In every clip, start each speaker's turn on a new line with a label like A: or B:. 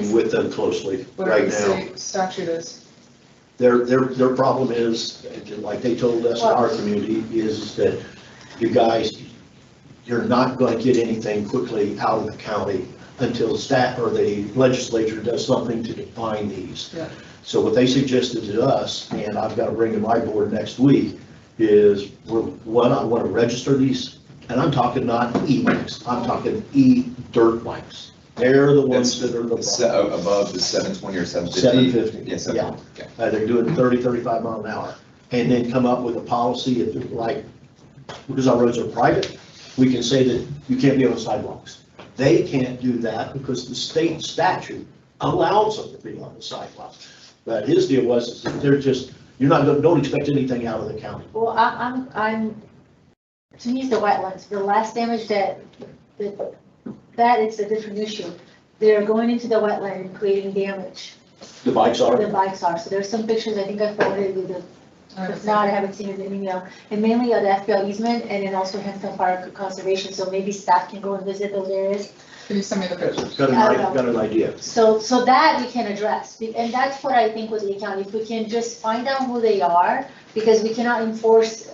A: working with them closely
B: Whatever
A: right
B: the
A: now.
B: state statute is.
A: Their, their, their problem is, like they told us in our community, is that you guys, you're not going to get anything quickly out of the county until staff or the legislature does something to define these.
B: Yeah.
A: So what they suggested to us, and I've got to bring to my board next week, is, we're- one, I want to register these, and I'm talking not e-bikes, I'm talking e-dirt bikes. They're the ones that are the
C: The se-
A: problem.
C: uh, Above the seven twenty or seven fifty?
A: Seven fifty.
C: Yeah,
A: Yeah.
C: seven, okay.
A: Uh, they're doing 30, 35 mile an hour, and then come up with a policy if, like, because our roads are private, we can say that you can't be on sidewalks. They can't do that because the state statute allows them to be on the sidewalk. But his deal was, is that they're just, you're not, gonna- don't expect anything out of the county.
D: Well, I- I'm, I'm, to me, it's the wetlands, the last damage that, that, that is a different issue. They're going into the wetland and creating damage,
A: The bikes
D: where
A: are,
D: the bikes are, so there's some pictures, I think I forwarded you, the-
B: I
D: if not, I haven't seen it in email. And mainly of the FPL easement, and then also Hampton Fire Conservation, so maybe staff can go and visit those areas.
B: Can you send me the pictures?
A: got an,
D: I don't
A: i-
D: know.
A: got an idea.
D: So, so that we can address, be- and that's what I think with the county, if we can just find out who they are, because we cannot enforce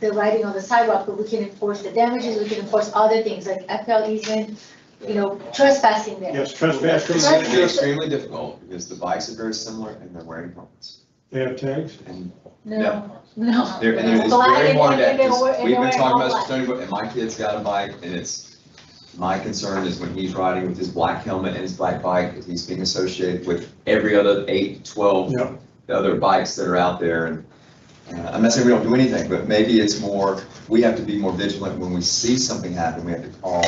D: the writing on the sidewalk, but we can enforce the damages, we can enforce other things, like FPL easement, you know, trespassing there.
E: Yes, trespass
C: It's
D: Right.
C: gonna be
E: commission,
C: extremely difficult because the bikes are very similar and they're wearing helmets.
E: they have tags.
C: And
D: No, no.
C: they're, and they're
D: It's black
C: very
D: and-
C: hard
D: and they're wear-
C: to,
D: and
C: we've
D: they're
C: been talking about
D: wearing all
C: this, Tony, but- and my kid's got a bike and it's, my concern is when he's riding with his black helmet and his black bike, is he's being associated with every other eight, twelve
E: Yep.
C: the other bikes that are out there and uh, I'm not saying we don't do anything, but maybe it's more, we have to be more vigilant when we see something happen, we have to call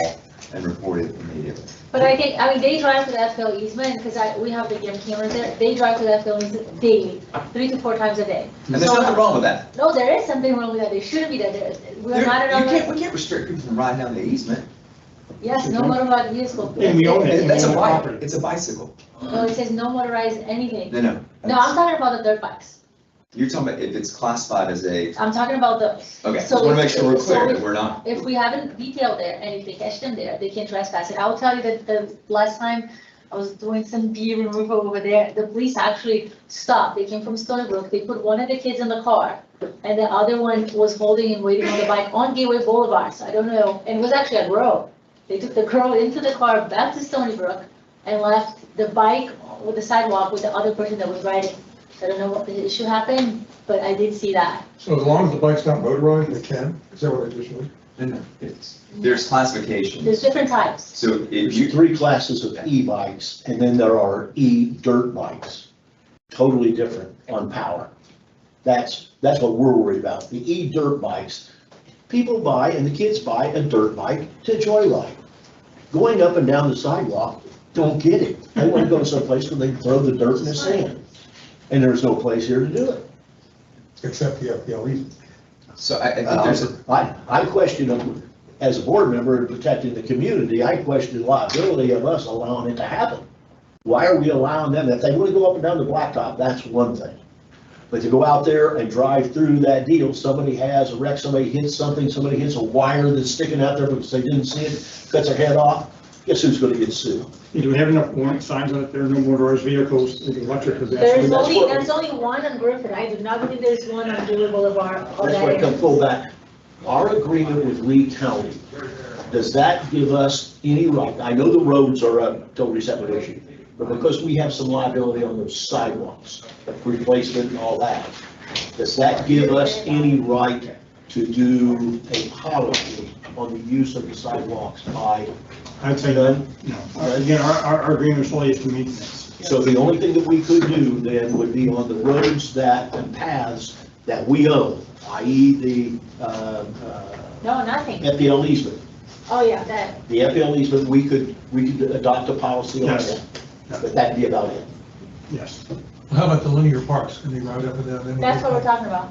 C: and report it immediately.
D: But I think, I mean, they drive to the FPL easement, because I, we have the game cameras there, they drive to the FPL easement daily, three to four times a day.
C: And there's nothing wrong with that.
D: No, there is something wrong with that, they shouldn't be there, There- we're
C: You
D: not
C: can't,
D: allowed,
C: we can't restrict people from riding down the easement.
D: yes, no motorized vehicle.
E: And we own it.
C: It- Mm-hmm. That's a bike,
E: Property.
C: it's a bicycle.
D: No, it says no motorized anything.
C: No, no.
D: No, I'm talking about the dirt bikes.
C: You're talking about if it's classified as a,
D: I'm talking about those.
C: okay, just
D: So
C: want to
D: if-
C: make sure we're
D: so
C: clear
D: if-
C: that we're not.
D: If we haven't detailed there and if they catch them there, they can trespass. And I'll tell you that the last time I was doing some bee removal over there, the police actually stopped. They came from Stony Brook. They put one of the kids in the car and the other one was holding and waiting on the bike on Gateway Boulevard. So I don't know, and it was actually a girl. They took the girl into the car back to Stony Brook and left the bike with the sidewalk with the other person that was riding. I don't know what the issue happened, but I did see that.
F: So as long as the bike's not motorized, they can, is that what I just heard?
C: No, no, it's, there's classifications.
D: There's different types.
C: So if you,
A: There's three classes of e-bikes, and then there are e-dirt bikes, totally different on power. That's, that's what we're worried about, the e-dirt bikes. People buy, and the kids buy a dirt bike to joyride. Going up and down the sidewalk, don't get it. They want to go someplace where they can throw the dirt and the sand, and there's no place here to do it.
F: Except the FPL easement.
C: so I, I
A: Uh,
C: think there's a,
A: I, I question them, as a board member and protecting the community, I question the liability of us allowing it to happen. Why are we allowing them, if they want to go up and down the blacktop, that's one thing. But to go out there and drive through that deal, somebody has a wreck, somebody hits something, somebody hits a wire that's sticking out there because they didn't see it, cuts their head off, guess who's gonna get sued?
E: Do we have enough warrant signs on it? There are no motorized vehicles, there's electric
D: There's
E: pedestrian.
A: that's
D: only,
A: what-
D: there's only one on Griffin. I do not believe there's one on Julie Boulevard. or
A: That's
D: that
A: why I
D: area.
A: come full back. Our agreement with Lee County, does that give us any right? I know the roads are a totally separate issue, but because we have some liability on those sidewalks, the replacement and all that, does that give us any right to do a policy on the use of the sidewalks by
E: I'd say that,
A: none?
E: no. Uh, Again, our, our our agreement solely is to maintenance.
A: So the only thing that we could do then would be on the roads that, and paths that we own, i.e. the, uh, uh,
D: No, nothing.
A: FPL easement.
D: Oh, yeah, that,
A: The FPL easement, we could, we could adopt a policy on
E: Yes.
A: that, but that'd be about it.
E: Yes.
F: How about the linear parks, can they ride up and down? them?
D: that's what we're talking about.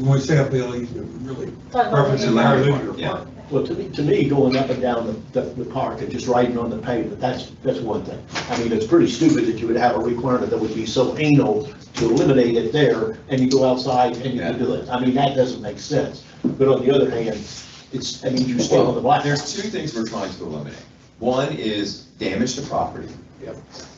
F: When we say FPL easement, we E, really
D: Talking about
F: reference
D: the-
F: our
C: linear
F: linear
C: park, yeah.
F: park.
A: Well, to me, to me, going up and down the, the park and just riding on the pavement, that's, that's one thing. I mean, it's pretty stupid that you would have a requirement that would be so anal to eliminate it there, and you go outside and you can do it. I mean, that doesn't make sense. But on the other hand, it's, I mean, you stay on the block.
C: there's two things we're trying to eliminate. One is damage to property.
A: Yep.